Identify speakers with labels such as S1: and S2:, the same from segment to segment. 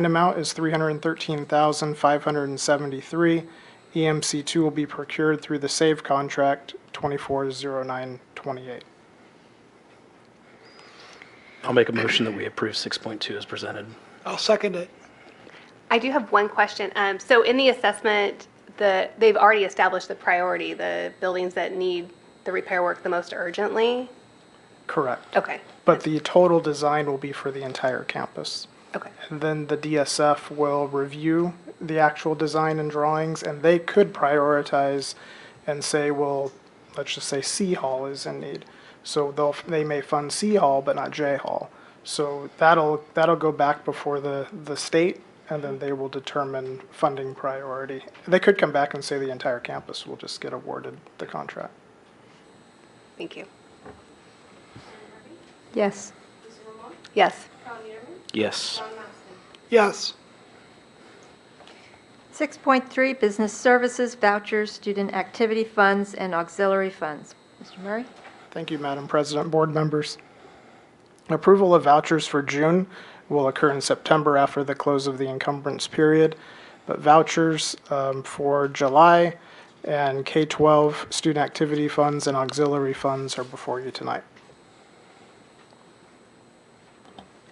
S1: An amount is $313,573. E EMC2 will be procured through the SAVE contract 240928.
S2: I'll make a motion that we approve 6.2 as presented.
S3: I'll second it.
S4: I do have one question. Um, So in the assessment, the, they've already established the priority, the buildings that need the repair work the most urgently?
S1: Correct.
S4: Okay,
S1: But the total design will be for the entire campus.
S4: okay.
S1: And then the DSF will review the actual design and drawings, and they could prioritize and say, well, let's just say C Hall is in need. So they'll, they may fund C Hall, but not J Hall. So that'll, that'll go back before the, the state, and then they will determine funding priority. They could come back and say the entire campus will just get awarded the contract.
S4: Thank you.
S5: Yes.
S4: Yes.
S2: Yes.
S3: Yes,
S5: 6.3, Business Services, Vouchers, Student Activity Funds, and Auxiliary Funds. Mr. Murray?
S1: Thank you, Madam President, board members. Approval of vouchers for June will occur in September after the close of the encumbrance period, but vouchers um, for July and K-12 student activity funds and auxiliary funds are before you tonight.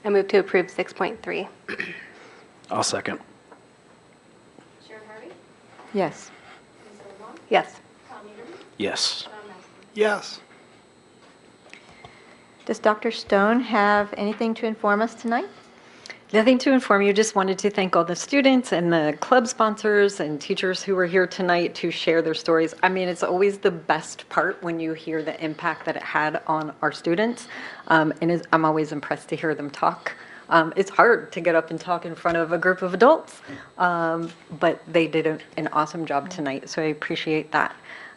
S4: I move to approve 6.3.
S2: I'll second.
S6: Sharon Harvey,
S5: Yes.
S6: Lisa Lamont,
S4: Yes.
S6: Tom Eaterman,
S2: Yes.
S6: Don Nelson.
S3: yes.
S5: Does Dr. Stone have anything to inform us tonight?
S7: Nothing to inform you, just wanted to thank all the students and the club sponsors and teachers who were here tonight to share their stories. I mean, it's always the best part when you hear the impact that it had on our students. Um, And is- I'm always impressed to hear them talk. Um, It's hard to get up and talk in front of a group of adults, um, but they did a- an awesome job tonight, so I appreciate that.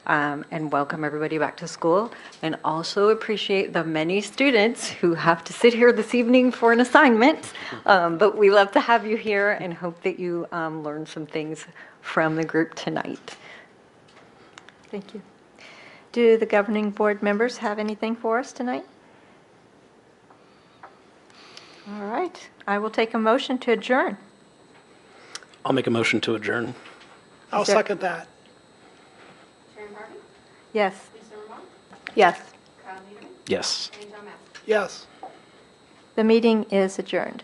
S7: Um, And welcome everybody back to school, and also appreciate the many students who have to sit here this evening for an assignment. Um, But we love to have you here and hope that you um, learned some things from the group tonight.
S5: Thank you. Do the governing board members have anything for us tonight? All right, I will take a motion to adjourn.
S2: I'll make a motion to adjourn.
S3: I'll
S5: there-
S3: second that.
S6: Sharon Harvey,
S5: Yes.
S6: Lisa Lamont,
S4: Yes.
S6: Tom Eaterman,
S2: Yes.
S6: and John Massey.
S3: Yes.
S5: The meeting is adjourned.